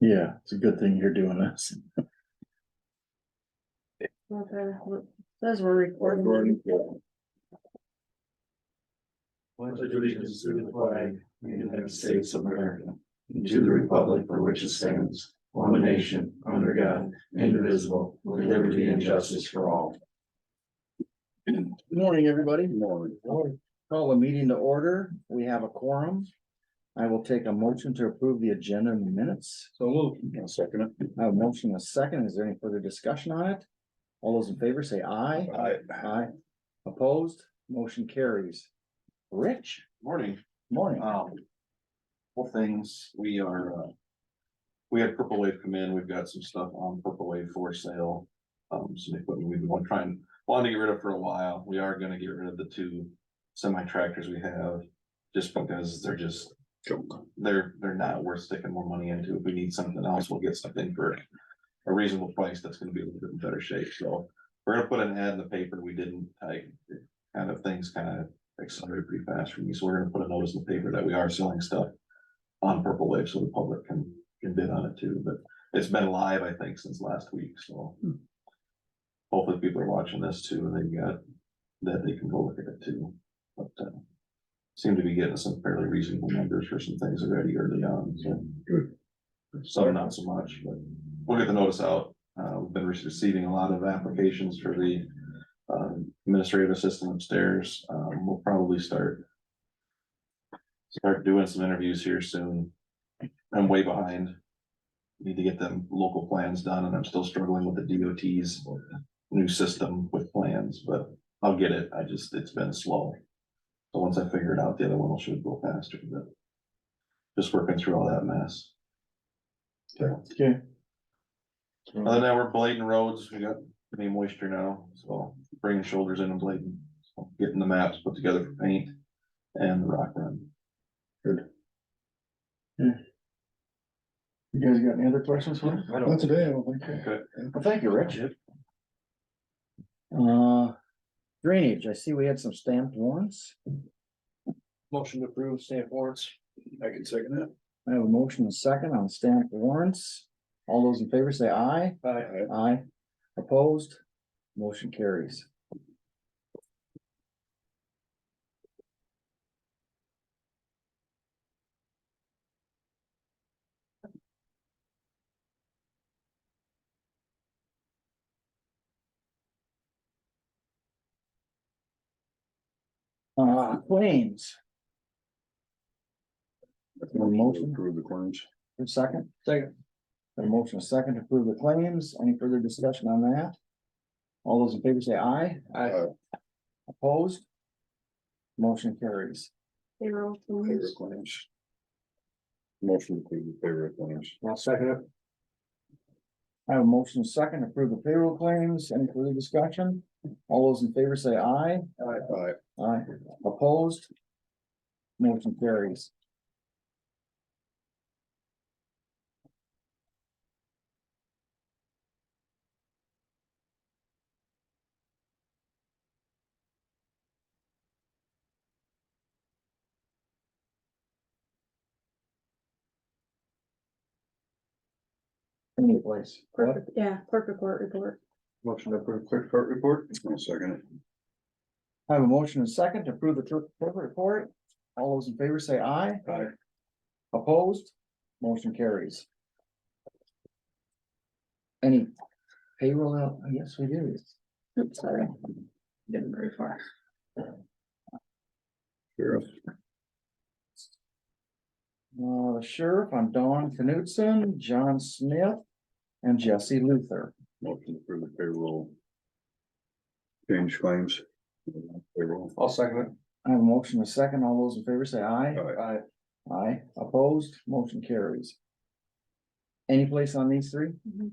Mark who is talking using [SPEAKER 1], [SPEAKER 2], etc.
[SPEAKER 1] Yeah, it's a good thing you're doing this.
[SPEAKER 2] Okay, well, Those were recorded.
[SPEAKER 1] Pledge allegiance to the flag, of the United States of America, and to the republic for which it stands, one nation, under God, indivisible, with liberty and justice for all. Good Morning, everybody. Morning. Call the meeting to order. We have a quorum. I will take a motion to approve the agenda in minutes. So move. Second. I have a motion and a second. Is there any further discussion on it? All those in favor say aye. Aye. Aye. Opposed? Motion carries. Rich?
[SPEAKER 3] Morning,
[SPEAKER 1] Morning.
[SPEAKER 3] um. Well, things, we are, uh. We had Purple Wave come in, we've got some stuff on Purple Wave for sale. Um, some equipment we've been trying, wanting to get rid of for a while, we are gonna get rid of the two semi tractors we have. Just because they're just, they're, they're not worth sticking more money into, if we need something else, we'll get something for. A reasonable price that's gonna be a little bit in better shape, so we're gonna put an ad in the paper, we didn't, I, kind of things kind of accelerated pretty fast for me, so we're gonna put a notice in the paper that we are selling stuff. On Purple Wave, so the public can, can bid on it too, but it's been live, I think, since last week, so. Hopefully people are watching this too, and they've got, that they can go look at it too, but, uh. Seem to be getting some fairly reasonable numbers for some things already early on, so. Some not so much, but we'll get the notice out, uh, we've been receiving a lot of applications for the um, administrative assistant upstairs, um, we'll probably start. Start doing some interviews here soon. I'm way behind. Need to get them local plans done and I'm still struggling with the DOT's new system with plans, but I'll get it. I just, it's been slow. So once I figure it out, the other one will should go faster, but. Just working through all that mess.
[SPEAKER 1] Okay.
[SPEAKER 3] Other than that, we're blading roads. We got any moisture now, so bringing shoulders in and blading, so getting the maps put together for paint and the rock run.
[SPEAKER 1] You guys got any other questions for me?
[SPEAKER 4] Not today, I don't think. so.
[SPEAKER 1] Well, thank you, Rich. Uh, drainage, I see we had some stamped warrants.
[SPEAKER 4] Motion to approve stamp warrants. I can second that.
[SPEAKER 1] I have a motion and second on stamped warrants. All those in favor say aye.
[SPEAKER 4] Aye.
[SPEAKER 1] Aye. Opposed? Motion carries. Uh, claims, Motion.
[SPEAKER 4] Approve the claims.
[SPEAKER 1] a second?
[SPEAKER 4] Second.
[SPEAKER 1] Got a motion, a second to approve the claims. Any further discussion on that? All those in favor say aye.
[SPEAKER 4] Aye.
[SPEAKER 1] Opposed? Motion carries.
[SPEAKER 2] They were all
[SPEAKER 4] Favor
[SPEAKER 2] closed.
[SPEAKER 4] of claims. Motion to approve the favor of claims.
[SPEAKER 1] I'll second it. I have a motion, a second to approve the payroll claims. Any further discussion? All those in favor say aye.
[SPEAKER 4] Aye.
[SPEAKER 1] Aye. Opposed? Motion carries. Any place.
[SPEAKER 2] Clerk- Yeah, clerk report report.
[SPEAKER 4] Motion to approve clerk court report. I'll second it.
[SPEAKER 1] I have a motion and second to approve the clerk clerk report. All those in favor say aye.
[SPEAKER 4] Aye.
[SPEAKER 1] Opposed? Motion carries. Any payroll out? Oh, Yes, we do.
[SPEAKER 2] Oops, sorry. Didn't very far.
[SPEAKER 4] Sheriff.
[SPEAKER 1] Uh, Sheriff, I'm Don Knutson, John Smith, and Jesse Luther.
[SPEAKER 4] Motion to approve the payroll. Change claims. Payroll. I'll second
[SPEAKER 1] I have a motion and second. All those in favor say aye.
[SPEAKER 4] Aye.
[SPEAKER 1] Aye. Opposed? Motion carries. Any place on these three?
[SPEAKER 2] Mhm.